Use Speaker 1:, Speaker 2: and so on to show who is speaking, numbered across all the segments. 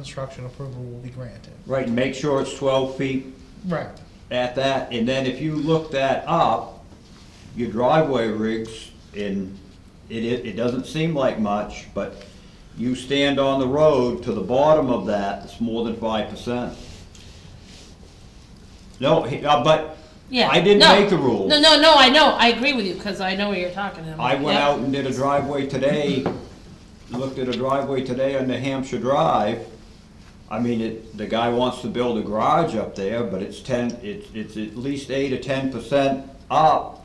Speaker 1: construction approval will be granted.
Speaker 2: Right, and make sure it's twelve feet
Speaker 1: Right.
Speaker 2: at that, and then if you look that up, your driveway rigs, and it, it, it doesn't seem like much, but you stand on the road to the bottom of that, it's more than five percent. No, he- uh, but
Speaker 3: Yeah.
Speaker 2: I didn't
Speaker 3: no.
Speaker 2: make the rules.
Speaker 3: No, no, no, I know, I agree with you, because I know what you're talking about.
Speaker 2: I went
Speaker 3: Yeah.
Speaker 2: out and did a driveway today, looked at a driveway today on New Hampshire Drive. I mean, it, the guy wants to build a garage up there, but it's ten, it's, it's at least eight or ten percent up.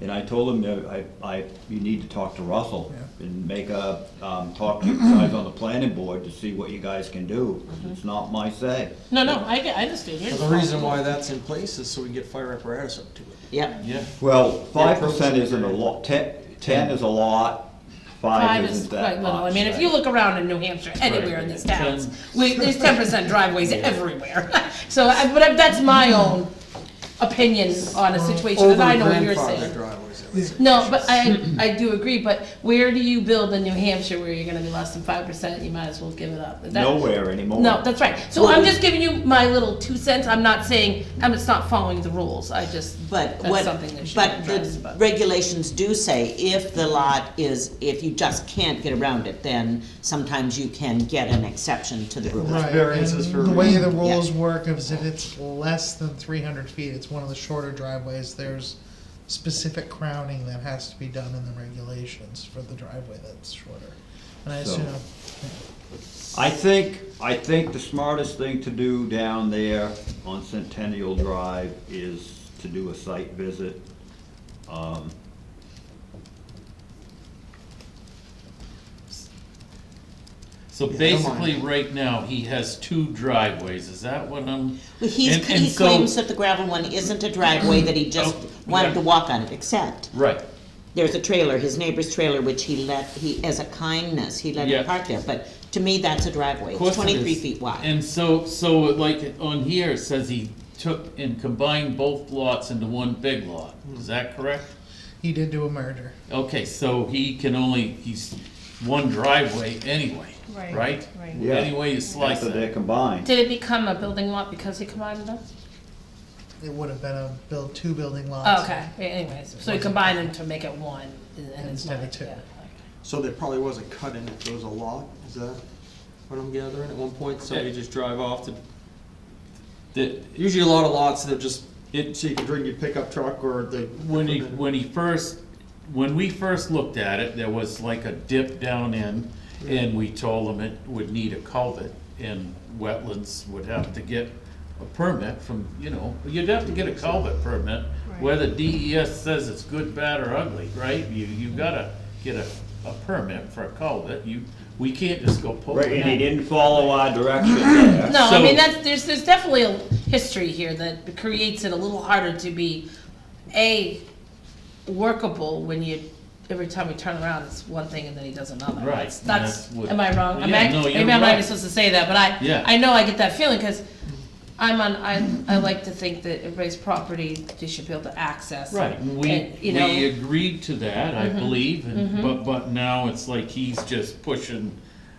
Speaker 2: And I told him, that I, I, you need to talk to Russell
Speaker 1: Yeah.
Speaker 2: and make a, um, talk to you guys on the planning board to see what you guys can do.
Speaker 3: Mm-hmm.
Speaker 2: It's not my say.
Speaker 3: No, no, I, get- I understand. You're
Speaker 4: But
Speaker 3: just-
Speaker 4: the reason why that's in place is so we can get fire apparatus up to it.
Speaker 5: Yep.
Speaker 4: Yeah.
Speaker 2: Well, five
Speaker 4: Approach
Speaker 2: percent
Speaker 4: it.
Speaker 2: isn't a lot, ten, ten is a lot, five
Speaker 3: Five is
Speaker 2: isn't that
Speaker 3: quite
Speaker 2: much.
Speaker 3: little. I mean, if
Speaker 2: right?
Speaker 3: you look around in New Hampshire, anywhere in this town, we, there's ten percent driveways everywhere. So, I- but I- that's my own opinion on a situation, and I know what you're
Speaker 4: Over-grandfathered
Speaker 3: saying.
Speaker 4: driveways, I would say.
Speaker 3: No, but I, I do agree, but where do you build in New Hampshire where you're gonna be less than five percent, you might as well give it up. That-
Speaker 2: Nowhere anymore.
Speaker 3: No, that's right. So I'm just giving you my little two cents. I'm not saying, I'm just not following the rules. I just,
Speaker 5: But
Speaker 3: that's
Speaker 5: what,
Speaker 3: something that should be
Speaker 5: but
Speaker 3: addressed.
Speaker 5: the
Speaker 3: but-
Speaker 5: regulations do say if the lot is, if you just can't get around it, then sometimes you can get an exception to the rule.
Speaker 1: Right,
Speaker 4: variances
Speaker 1: and
Speaker 4: for a
Speaker 1: The way
Speaker 4: reason.
Speaker 1: the rules work is if it's less than three hundred feet, it's one of the shorter driveways, there's specific crowning that has to be done in the regulations for the driveway that's shorter. And I
Speaker 2: So-
Speaker 1: assume,
Speaker 2: I think, I think the smartest thing to do down there on Centennial Drive is to do a site visit. Um,
Speaker 6: So
Speaker 4: Yeah,
Speaker 6: basically,
Speaker 4: don't
Speaker 6: right now, he has two driveways, is that what I'm?
Speaker 5: Well, He's,
Speaker 6: And- and
Speaker 5: he
Speaker 6: so-
Speaker 5: claims that the gravel one isn't a driveway, that he just
Speaker 6: Oh,
Speaker 5: wanted to
Speaker 6: yeah.
Speaker 5: walk on it, except
Speaker 6: Right,
Speaker 5: there's a trailer, his neighbor's trailer, which he let, he, as a kindness, he let
Speaker 6: Yeah.
Speaker 5: it park there, but to me, that's a driveway,
Speaker 6: of
Speaker 5: it's
Speaker 6: course it
Speaker 5: twenty-three
Speaker 6: is.
Speaker 5: feet wide.
Speaker 6: And so, so like on here, it says he took and combined both lots into one big lot,
Speaker 4: Hmm.
Speaker 6: is that correct?
Speaker 1: he did do a merger.
Speaker 6: Okay, so he can only, he's one driveway anyway,
Speaker 3: Right,
Speaker 6: right?
Speaker 3: right.
Speaker 2: Yeah.
Speaker 6: Any way you slice
Speaker 2: After they're
Speaker 6: it.
Speaker 2: combined.
Speaker 3: Did it become a building lot because he combined them?
Speaker 1: It would have been a build, two building lots.
Speaker 3: Oh, Okay, yeah, anyways, so he combined them to make it one and and it's
Speaker 1: Instead
Speaker 3: not,
Speaker 1: of two.
Speaker 3: yeah.
Speaker 4: So there probably was a cut in it, there was a log, is that what I'm gathering at one point, so you just drive off to,
Speaker 6: The-
Speaker 4: usually a lot of lots, they're just, it, so you can bring your pickup truck or the.
Speaker 6: When he, when he first, when we first looked at it, there was like a dip down in, and we told him it would need a culvert, and wetlands would have to get a permit from, you know, you'd have to get a culvert permit, whether DES E says it's good, bad, or ugly, right? You, you gotta get a, a permit for a culvert, you, we can't just go pull
Speaker 2: Right,
Speaker 6: it
Speaker 2: and he didn't follow our direction there.
Speaker 3: No, I
Speaker 6: So-
Speaker 3: mean, that's, there's, there's definitely a history here that creates it a little harder to be, A, workable when you, every time we turn around, it's one thing and then he does another.
Speaker 6: Right,
Speaker 3: That's-
Speaker 6: and
Speaker 3: That's,
Speaker 6: that's what-
Speaker 3: am I wrong? Am
Speaker 6: Yeah,
Speaker 3: I-
Speaker 6: no,
Speaker 3: Maybe
Speaker 6: you're
Speaker 3: I'm not even
Speaker 6: right.
Speaker 3: supposed to say that, but I,
Speaker 6: Yeah.
Speaker 3: I know I get that feeling, cause I'm on, I, I like to think that everybody's property, they should be able to access.
Speaker 6: Right, and we,
Speaker 3: and, you know. Mm-hmm.
Speaker 6: we agreed to that, I believe, and, but, but now it's like he's just pushing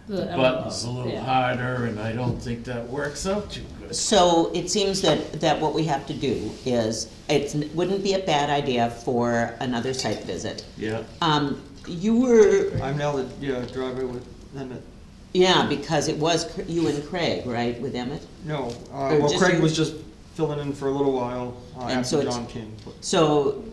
Speaker 3: The
Speaker 6: the
Speaker 3: envelope,
Speaker 6: buttons a little
Speaker 3: yeah.
Speaker 6: harder, and I don't think that works out too good.
Speaker 5: So it seems that, that what we have to do is, it wouldn't be a bad idea for another site visit.
Speaker 6: Yeah,
Speaker 5: Um, you were
Speaker 4: I'm now the, yeah, driveway with them at,
Speaker 5: Yeah, because it was Cr- you and Craig, right, with Emmett?
Speaker 4: no, uh,
Speaker 5: Or
Speaker 4: well
Speaker 5: just
Speaker 4: Craig
Speaker 5: you-
Speaker 4: was just filling in for a little while, uh,
Speaker 5: And so
Speaker 4: after
Speaker 5: it's-
Speaker 4: John King. but-
Speaker 5: So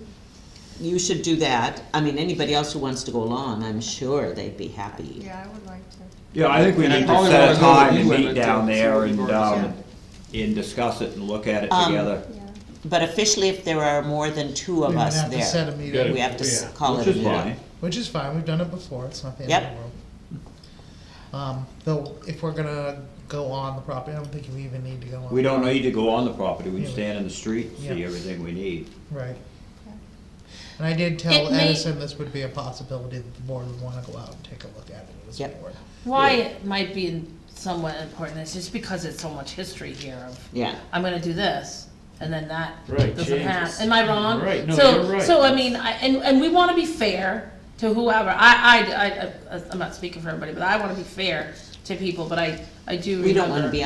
Speaker 5: you should do that. I mean, anybody else who wants to go along, I'm sure they'd be happy.
Speaker 7: Yeah, I would like to.
Speaker 2: Yeah, I think we
Speaker 4: And I
Speaker 2: need to
Speaker 4: probably
Speaker 2: set a
Speaker 4: wanna go with
Speaker 2: time
Speaker 4: you
Speaker 2: and
Speaker 4: on
Speaker 2: meet
Speaker 4: it,
Speaker 2: down
Speaker 4: too, see
Speaker 2: there
Speaker 4: what
Speaker 2: and,
Speaker 4: you've already
Speaker 2: um, and discuss it and look at it
Speaker 5: Um,
Speaker 2: together.
Speaker 7: Yeah.
Speaker 5: But officially, if there are more than two of
Speaker 1: We would
Speaker 5: us
Speaker 1: have to set a
Speaker 5: there,
Speaker 1: meeting,
Speaker 5: we have to s-
Speaker 6: Yeah,
Speaker 5: call
Speaker 2: Which
Speaker 5: it a
Speaker 2: is fine.
Speaker 5: meeting.
Speaker 1: which is fine, we've done it before, it's not the end of
Speaker 5: Yep.
Speaker 1: the world. Um, though, if we're gonna go on the property, I don't think we even need to go on.
Speaker 2: We don't need to go on the property, we can
Speaker 1: Yeah.
Speaker 2: stand in the street and see
Speaker 1: Yeah.
Speaker 2: everything we need.
Speaker 1: Right. And I did
Speaker 3: It
Speaker 1: tell
Speaker 3: may-
Speaker 1: Edison this would be a possibility that the board would wanna go out and take a look at it as a
Speaker 5: Yep.
Speaker 1: board.
Speaker 3: Why it might be somewhat important is just because it's so much history here of,
Speaker 5: Yeah.
Speaker 3: I'm gonna do this, and then that
Speaker 6: Right,
Speaker 3: doesn't
Speaker 6: changes.
Speaker 3: happen. Am I wrong?
Speaker 6: Right, no,
Speaker 3: So-
Speaker 6: you're right.
Speaker 3: So, I mean, I, and, and we wanna be fair to whoever, I, I, I, I- I'm not speaking for everybody, but I wanna be fair
Speaker 8: to people, but I, I do remember.
Speaker 3: We don't wanna be